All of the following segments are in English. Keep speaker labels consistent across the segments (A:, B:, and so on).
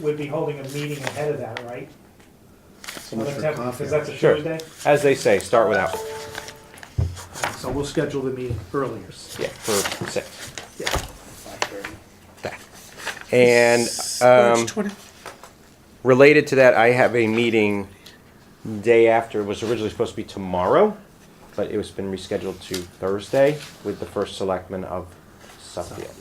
A: would be holding a meeting ahead of that, right?
B: So much for
A: Because
B: coffee.
A: that's a
C: Sure.
A: Tuesday?
C: As they say, start without.
B: So we'll schedule the meeting earlier.
C: Yeah, for six.
B: Yeah.
C: And um, related to that, I have a meeting day after. It was originally supposed to be tomorrow, but it was been rescheduled to Thursday with the first selectman of Suffield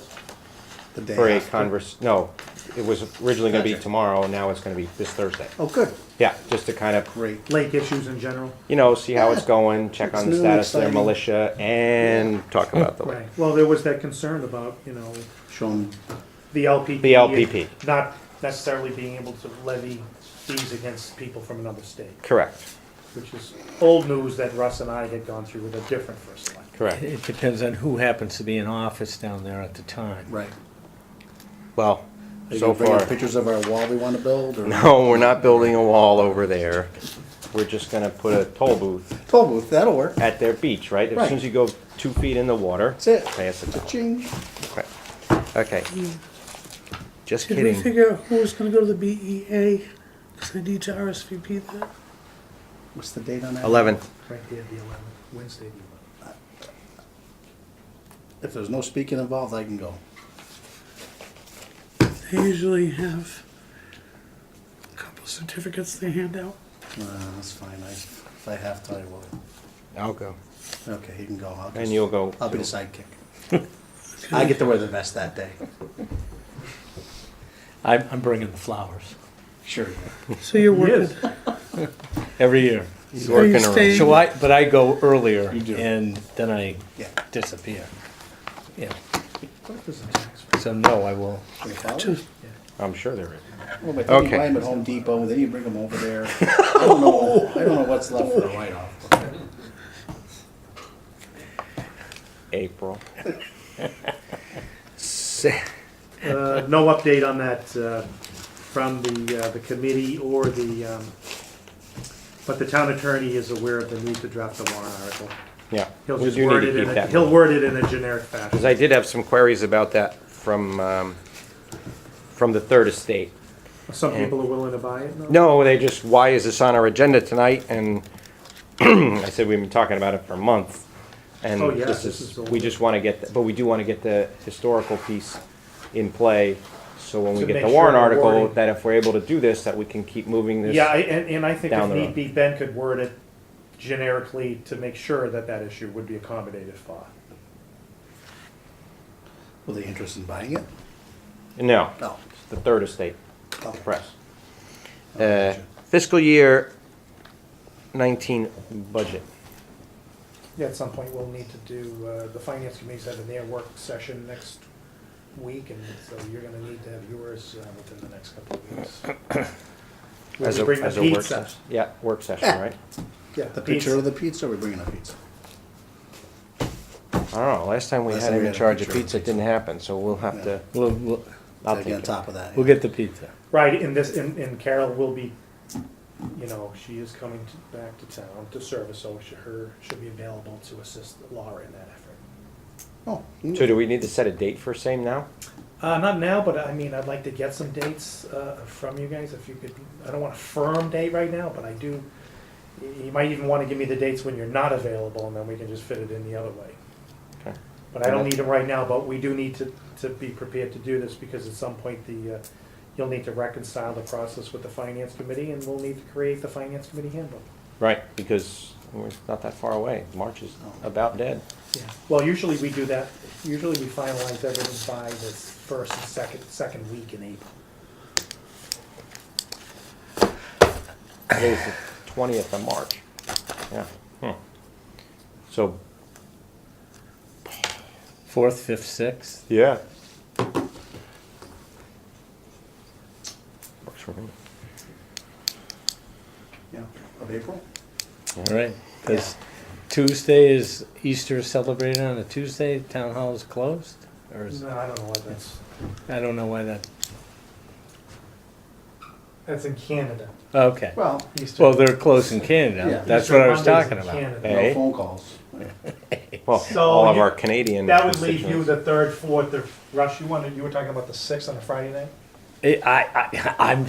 B: The day
C: for a
B: after.
C: converse. No, it was originally going to be
B: Gotcha.
C: tomorrow. Now it's going to be this Thursday.
B: Oh, good.
C: Yeah, just to kind of
B: Great. Lake issues in general.
C: you know see how it's
B: Yeah.
C: going, check
B: It's
C: on the
B: new,
C: status of their
B: exciting.
C: militia, and talk about the
A: Right.
B: Well, there was that concern about, you know,
D: Show 'em
A: The LPP.
C: The LPP.
A: Not necessarily being able to levy fees against people from another state,
C: correct,
A: which is old news that Russ and I had gone through with a different first select.
C: correct.
E: It depends on who happens to be in office down there at the time.
D: right.
C: Well,
D: They
C: so
D: gonna bring
C: far.
D: up Pictures of our wall we want to build or?
C: No, we're not building a wall over there. We're just gonna put a toll booth
D: Toll booth, that'll work.
C: at their beach, right? As soon as you go two feet in the water.
D: That's it.
C: Pay us a dollar.
D: Ka-ching.
C: Okay. Just
F: Did we
C: kidding.
F: figure out who was gonna go to the BEA? Cause I need to RSVP that.
D: What's the date on that?
C: Eleven.
A: Right there, the eleventh, Wednesday, the eleventh.
D: If there's no speaking involved, I can go.
F: They usually have a couple certificates they hand out.
D: Uh, that's fine. I, if I have to, I will.
C: I'll go.
D: Okay, he can go. I'll just,
C: And you'll go.
D: I'll be
C: too.
D: the sidekick. I get to wear the vest that day.
E: I'm, I'm bringing the flowers
D: Sure.
F: So you're working.
E: every year.
C: He's
F: Are you
C: working around.
F: staying-
E: So I, but I go earlier
D: do.
E: and then I
D: Yeah.
E: disappear. Yeah,
A: What is the tax rate?
E: so no, I will.
D: Can we follow?
F: Just-
C: I'm sure there is.
D: Well, but then you
C: Okay.
D: buy 'em at Home Depot, then you bring them over there. I don't know. I don't know what's left for a write-off.
C: April. Se-
A: Uh, no update on that uh, from the, uh, the committee or the, um, but the town attorney is aware of the need to draft the warrant article.
C: Yeah.
A: He'll
C: We
A: just
C: do need
A: word
C: to
A: it in,
C: keep
A: a-
C: that
A: he'll
C: one.
A: word it in a generic fashion.
C: Because I did have some queries about that from, um, from the third estate.
A: Some people are willing to buy it, no?
C: No, they just, why is this on our agenda tonight? And I said, we've been talking about it for a month. And
A: Oh, yeah,
C: this
A: this
C: is,
A: is old.
C: we just want to get, the- but we do want to get the historical piece in play. So when we
A: To
C: get the
A: make
C: warrant
A: sure we're
C: article,
A: wording-
C: that if we're able to do this, that we can keep moving this.
A: Yeah, I- and, and I think
C: down
A: if
C: the
A: need
C: road.
A: be, Ben could word it generically to make sure that that issue would be accommodated for.
D: Were they interested in buying it?
C: No,
D: No.
C: the third estate, the
D: Okay.
C: press.
D: Oh, gotcha.
C: Uh, Fiscal year 19 budget.
A: Yeah, at some point, we'll need to do, uh, the finance committee's having their work session next week, and so you're gonna need to have yours uh, within the next couple of weeks. We
C: as a-
A: can bring the
C: as a work
A: pizza.
C: session. Yeah, work session, right?
A: Yeah,
D: The picture
A: pizza.
D: of the pizza, or we bringing a pizza?
C: I don't know, last time we
D: Last
C: had
D: time
C: him
D: we
C: in
D: had a
C: charge of
D: picture.
C: pizza, it didn't happen, so we'll have to,
E: We'll, we'll,
C: I'll
D: Gotta
C: take
D: get on
C: it.
D: top of that.
E: we'll get the pizza.
A: Right, and this, and, and Carol will be, you know, she is coming to, back to town to service, so she, her, she'll be available to assist Laura in that effort.
D: Oh,
C: So do we need to set a date for same now?
A: Uh, not now, but I mean, I'd like to get some dates, uh, from you guys, if you could, I don't want a firm date right now, but I do, y- you might even wanna give me the dates when you're not available, and then we can just fit it in the other way.
C: Okay.
A: But I don't need them right now, but we do need to, to be prepared to do this, because at some point, the, uh, you'll need to reconcile the process with the finance committee, and we'll need to create the finance committee handbook.
C: Right, because we're not that far away. March is about dead.
A: Yeah. Well, usually we do that, usually we finalize everything by the first and second, second week in April.
C: Today's the twentieth of March. Yeah. Hmm. So,
E: Fourth, fifth, sixth.
C: yeah. Works for me.
D: Yeah, of April?
E: All right, because Tuesday is Easter celebrated on a Tuesday. Town hall is closed, or is,
A: No, I don't know what that's.
E: I don't know why that.
A: That's in Canada.
E: Okay.
D: Well,
A: Easter-
E: Well, they're close in
D: Yeah.
E: Canada. That's
A: Easter
E: what I was
A: Monday's in
E: talking about. eh?
A: Canada.
D: no
C: Hey.
D: phone calls.
C: Well,
A: So
C: all of
A: you-
C: our Canadian
A: That would leave you
C: constituents.
A: the third, fourth, or, Rush, you wanted, you were talking about the sixth on a Friday night?
E: I, I, I'm